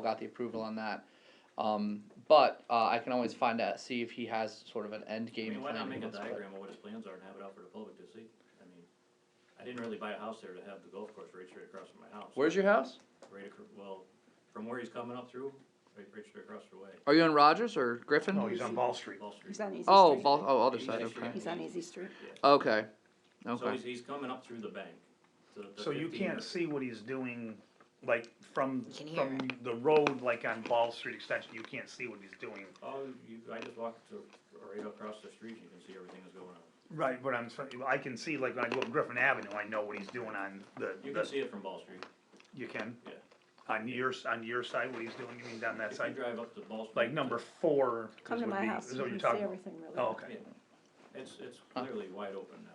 got the approval on that. Um, but uh, I can always find out, see if he has sort of an end I game. mean, why plan not he make a wants to play. diagram of what his plans are and have it out for the public to see? I mean, I didn't really buy a house there to have the golf course right straight across from my house. Where's your house? Right acro- well, from where he's coming up through, right, right straight across the way, Are you on Rogers or Griffin? Oh, No, he's on Ball Street. Ball Street. He's on Easy Street. oh, Bal- oh, other He's side. actually- Okay. He's on Easy Street. Okay. So Okay. he's, he's coming up through the bank. to the So you 15 can't see what he's doing, like, from, You can hear from the road, like on Ball Street Extension, you can't see what he's doing. Oh, you, I just walked to, right across the street, you can see everything that's going on. Right, but I'm, saying- I can see, like, when I go up Griffin Avenue, I know what he's doing on the, You can the, see it from Ball Street, you can? yeah. On your, s- on your side, what he's doing, you mean down that If you side? drive up to Ball Street. Like number four is Come to would my be- house, is you what can you're see talking about. everything really. Oh, well. okay. Yeah. It's, it's clearly wide open now.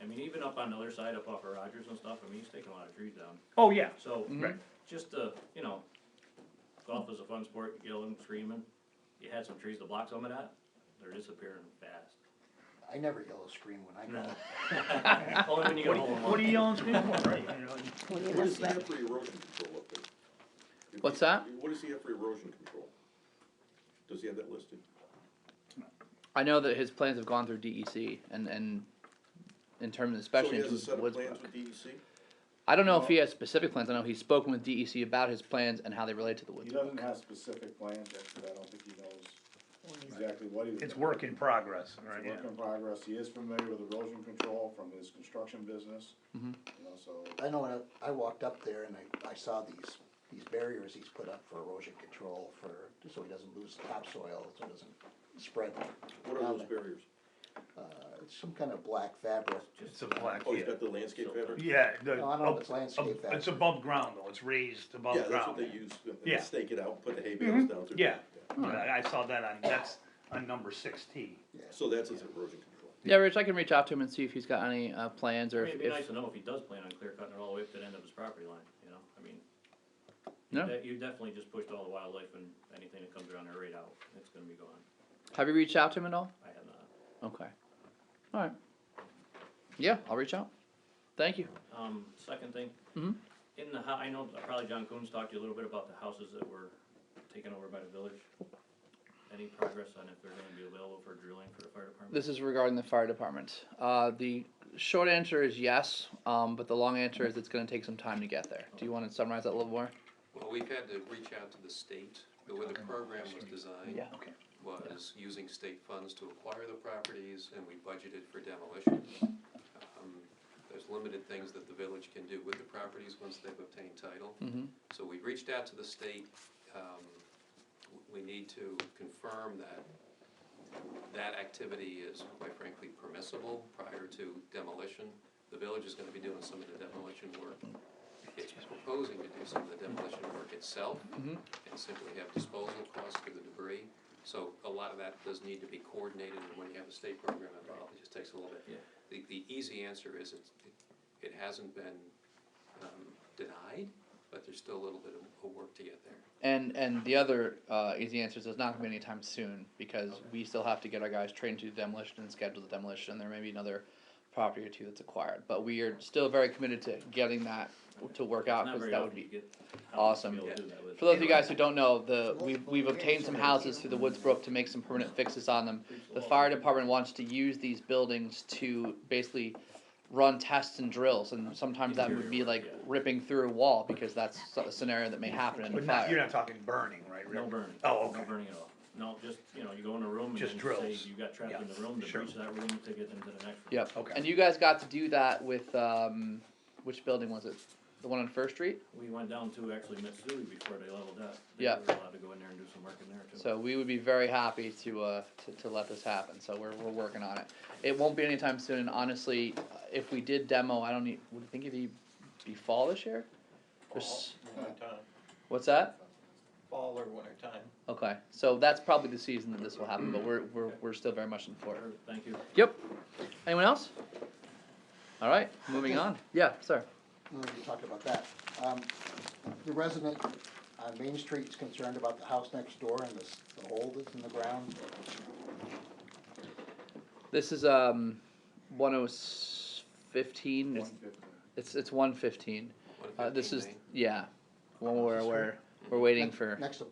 I mean, even up on the other side, up off of Rogers and stuff, I mean, he's taking a lot of trees down. Oh, yeah, So, right, just to, you know, golf is a fun sport, yelling, screaming. You had some trees to block some of that, they're disappearing fast. I never yellow scream when I go. Only when you go home. what are you yelling, screaming for, right? you know? When you What does look he back- have for erosion control up there? If What's he- that? What does he have for erosion control? Does he have that listed? I know that his plans have gone through DEC and and in terms of especially in terms So of he has a set of Woodsbrook. plans with E DEC? I don't know if he has specific plans. I know he's spoken with DEC about his plans and how they relate to the He Woodsbrook. doesn't have specific plans yet, because I don't think he knows exactly what he. It's work in progress, right, It's yeah. work in progress. He is familiar with erosion control from his construction business. You know, so, I know, when I- I walked up there and I, I saw these, these barriers he's put up for erosion control for, so he doesn't lose topsoil, so it doesn't spread. What are those barriers? Uh, It's some kind of black fabric. It's a black, Oh, yeah. he's got the landscape fabric? Yeah, the, No, I don't know up- Oh, if it's landscape up- it's fabric. above ground though, it's raised above Yeah, ground. that's what they use, Yeah. Mm-hmm. they stake it out, put the hay bales down through. Yeah, Yeah. I I saw that on, that's on number six T. So that's his erosion control. Yeah, Rich, I can reach out to him and see if he's got any uh, plans I or mean, if, it'd be nice if to know if he does plan on clear cutting it all the way up to the end of his property line, you know, I mean. No. that- You definitely just pushed all the wildlife and anything that comes around there right out, it's gonna be gone, have you reached out to him at all? I have not. Okay. All right. Yeah, I'll reach out. Thank you. Um, second thing. Mhm. In the hou- I know probably John Coons talked to you a little bit about the houses that were taken over by the village. Any progress on if they're gonna be available for drilling for the fire department? This is regarding the fire department. Uh, the short answer is yes, um, but the long answer is it's going to take some time to get there. Do you want to summarize that a little more? Well, we've had to reach out to the state, the way the program was designed Yeah. Okay. was using state funds to acquire the properties, and we budgeted for demolition. Um, There's limited things that the village can do with the properties once they've obtained title. Mm-hmm. So we reached out to the state, um, w- we need to confirm that that activity is quite frankly permissible prior to demolition. The village is gonna be doing some of the demolition work. Mm. It's proposing to do some of the demolition work itself Mm-hmm. and simply have disposal costs for the debris. So a lot of that does need to be coordinated, and when you have a state program involved, it just takes a little bit. Yeah. The, the easy answer is it's, it- it hasn't been, um, denied, but there's still a little bit of, of work to get there. And and the other uh, easy answer is it's not going to be anytime soon because we still have to get our guys trained to do demolition and schedule the demolition. There may be another property or two that's acquired, but we are still very committed to getting that to work out Not because very that often would be you get houses to awesome. be able to do that with. For those of you guys who don't know, the, we've, we've obtained some houses through the Woods Brook to make some permanent fixes on them. The fire department wants to use these buildings to basically run tests and drills, and sometimes that would be like ripping through a wall, because that's a scenario that may happen in a But not, you're fire. not talking burning, right? No Rick? burning. Oh, No okay. burning at all. No, just, you know, you go in a room and Just then say drills. you got trapped in Yeah, the room, the sure. breach of that room to get into the next room. Yep, Okay. and you guys got to do that with, um, which building was it? The one on First Street? We went down to actually Mitsui before they leveled up. They Yeah. were allowed to go in there and do some work in there too. So we would be very happy to, uh, to, to let this happen, so we're, we're working on it. It won't be anytime soon, and honestly, uh, if we did demo, I don't need, would you think it'd be, be fall this year? Or s- What's that? fall or winter time. Okay, so that's probably the season that this will happen, but we're, we're, we're still very much in for it. Sure, Thank you. Yep, anyone else? Alright, moving on, yeah, sir. We talked about that. Um, The resident on Main Street is concerned about the house next door and the, s- the hole that's in the ground. This is, um, one oh s- fifteen, it's, one fifteen. it's, it's one fifteen. Uh, this is, 115 Main. yeah, one where, where We're waiting for. Next